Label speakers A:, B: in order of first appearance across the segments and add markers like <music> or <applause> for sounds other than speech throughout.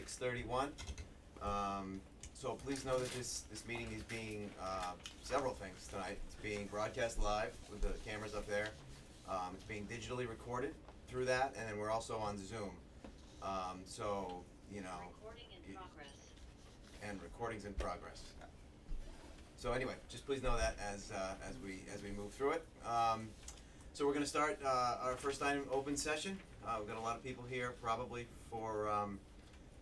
A: thirty-one. Um, so please know that this, this meeting is being, uh, several things tonight. It's being broadcast live with the cameras up there. Um, it's being digitally recorded through that, and then we're also on Zoom. Um, so, you know,
B: Recording in
A: y-
B: progress.
A: and recordings in progress. So anyway, just please know that as, uh, as we, as we move through it. Um, so we're gonna start, uh, our first item, open session. Uh, we've got a lot of people here probably for, um,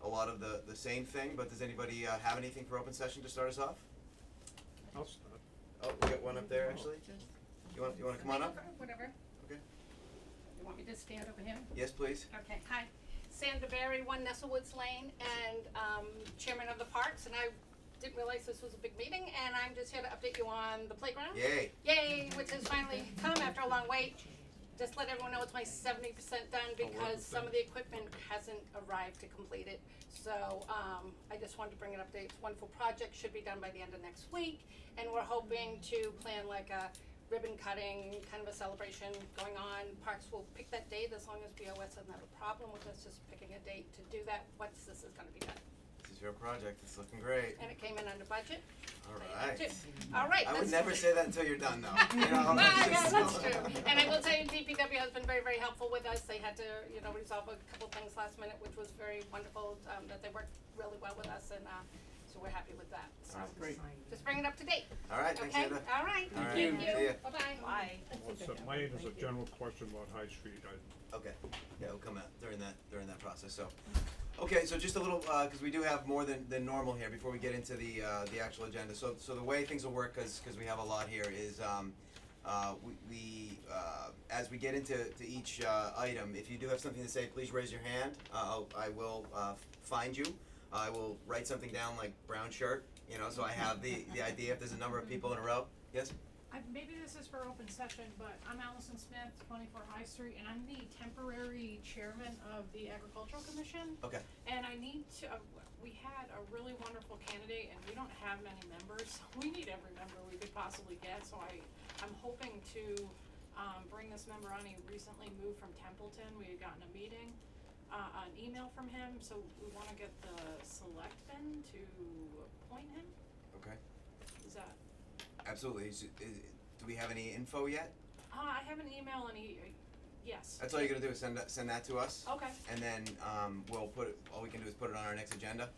A: a lot of the, the same thing, but does anybody, uh, have anything for open session to start us off?
C: I'll stop.
A: Oh, we got one up there actually. You wanna, you wanna come on up?
D: Whatever.
A: Okay.
D: You want me to stand over here?
A: Yes, please.
D: Okay, hi. Sandra Berry, One Nestlewoods Lane, and um, Chairman of the Parks, and I didn't realize this was a big meeting, and I'm just here to update you on the playground.
A: Yay.
D: Yay, which has finally come after a long wait. Just let everyone know it's my seventy percent
A: Oh,
D: done because some of the equipment hasn't arrived to complete it. So, um, I just wanted to bring an update. It's a wonderful project, should be done by the end of next week. And we're hoping to plan like a ribbon cutting, kind of a celebration going on. Parks will pick that date as long as BOS doesn't have a problem with us just picking a date to do that, once this is gonna be done.
A: This is your project. It's looking great.
D: And it came in under budget.
A: All
D: Thank you,
A: right.
D: too. All right,
A: I would
D: let's-
A: never say that until you're done though.
D: <laughs>
A: You know,
D: Ah,
A: it's
D: yeah,
A: just- <laughs>
D: that's true. And I will tell you, DPW has been very, very helpful with us. They had to, you know, resolve a couple things last minute, which was very wonderful, um, that they worked really well with us and, uh, so we're happy with that. So,
A: All right.
C: Great.
D: just bring it up to date,
A: All right, thanks,
D: okay?
A: Heather.
D: All right,
A: All right,
D: thank
A: see ya.
D: you. Bye-bye.
C: Well, so mine is a general question about High Street, I,
A: Okay, yeah, it'll come out during that, during that process, so. Okay, so just a little, uh 'cause cause we do have more than, than normal here before we get into the, uh, the actual agenda, so, so the way things will work, cause, 'cause we have a lot here, is, um, uh, we, we, uh, as we get into, to each, uh, item, if you do have something to say, please raise your hand, uh, I'll, I will, uh, find you. I will write something down like brown shirt, you know, so I have the, the idea if there's a number of people in a row, yes?
E: I, maybe this is for open session, but I'm Allison Smith, twenty-four High Street, and I'm the temporary chairman of the agricultural commission.
A: Okay.
E: And I need to, uh, we had a really wonderful candidate and we don't have many members, <laughs> we need every member we could possibly get, so I, I'm hoping to, um, bring this member on, he recently moved from Templeton, we had gotten a meeting, uh, an email from him, so we wanna get the selectmen to appoint him,
A: Okay,
E: is that?
A: absolutely, is, is, do we have any info yet?
E: Uh, I have an email and he, uh, yes.
A: That's all you're gonna do is send that, send that to us?
E: Okay,
A: and then um, we'll put it, all we can do is put it on our next
E: <laughs>
A: agenda.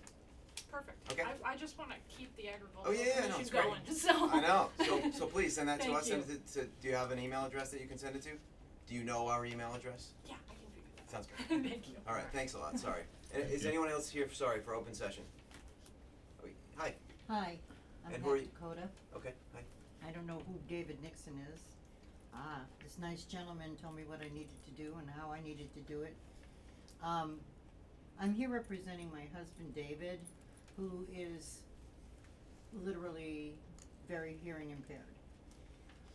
E: perfect.
A: Okay.
E: I, I just wanna keep the agricultural
A: Oh, yeah, yeah, no,
E: commission
A: it's great.
E: going, <laughs> so.
A: I know. So so please send that to
E: Thank
A: us. Send
E: you.
A: it to, do you have an email address that you can send it to? Do you know our email address?
E: Yeah, I can figure that
A: Sounds
E: out. <laughs>
A: good.
E: Thank you.
A: All right. Thanks a lot. Sorry. And
C: <laughs> Thank
A: is
C: you.
A: anyone else here? Sorry for open session. Oh, Hi.
F: Hi,
A: And
F: I'm Pat
A: who are you-
F: Dakota.
A: Okay. Hi.
F: I don't know who David Nixon is. Ah, this nice gentleman told me what I needed to do and how I needed to do it. Um, I'm here representing my husband David, who is literally very hearing impaired.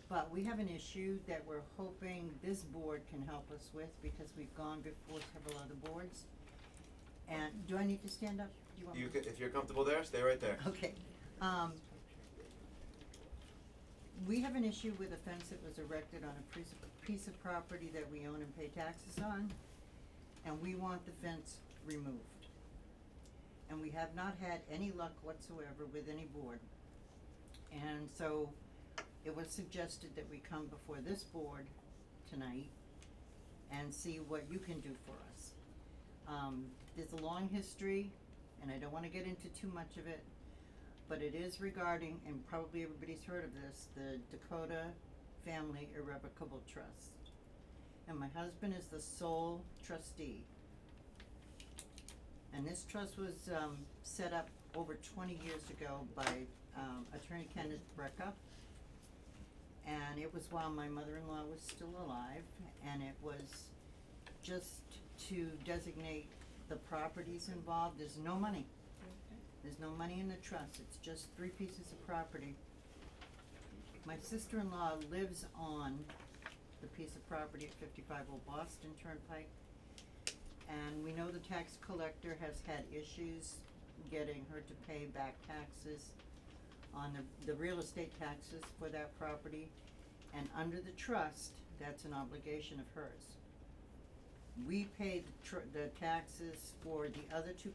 F: But we have an issue that we're hoping this board can help us with because we've gone before several other boards. And, do I need to stand up? Do you want me
A: You can, if you're comfortable there, stay right
E: <laughs>
A: there.
F: Okay, um. We have an issue with a fence that was erected on a piece of, piece of property that we own and pay taxes on, and we want the fence removed. And we have not had any luck whatsoever with any board. And so it was suggested that we come before this board tonight and see what you can do for us. Um, there's a long history, and I don't wanna get into too much of it, but it is regarding, and probably everybody's heard of this, the Dakota Family Irrevocable Trust. And my husband is the sole trustee. And this trust was, um, set up over twenty years ago by, um, Attorney Kenneth Brecka. And it was while my mother-in-law was still alive, and it was just to designate the properties involved, there's no money. There's no money in the trust, it's just three pieces of property. My sister-in-law lives on the piece of property at fifty-five Old Boston Turnpike. And we know the tax collector has had issues getting her to pay back taxes on the, the real estate taxes for that property. And under the trust, that's an obligation of hers. We pay the tr- the taxes for the other two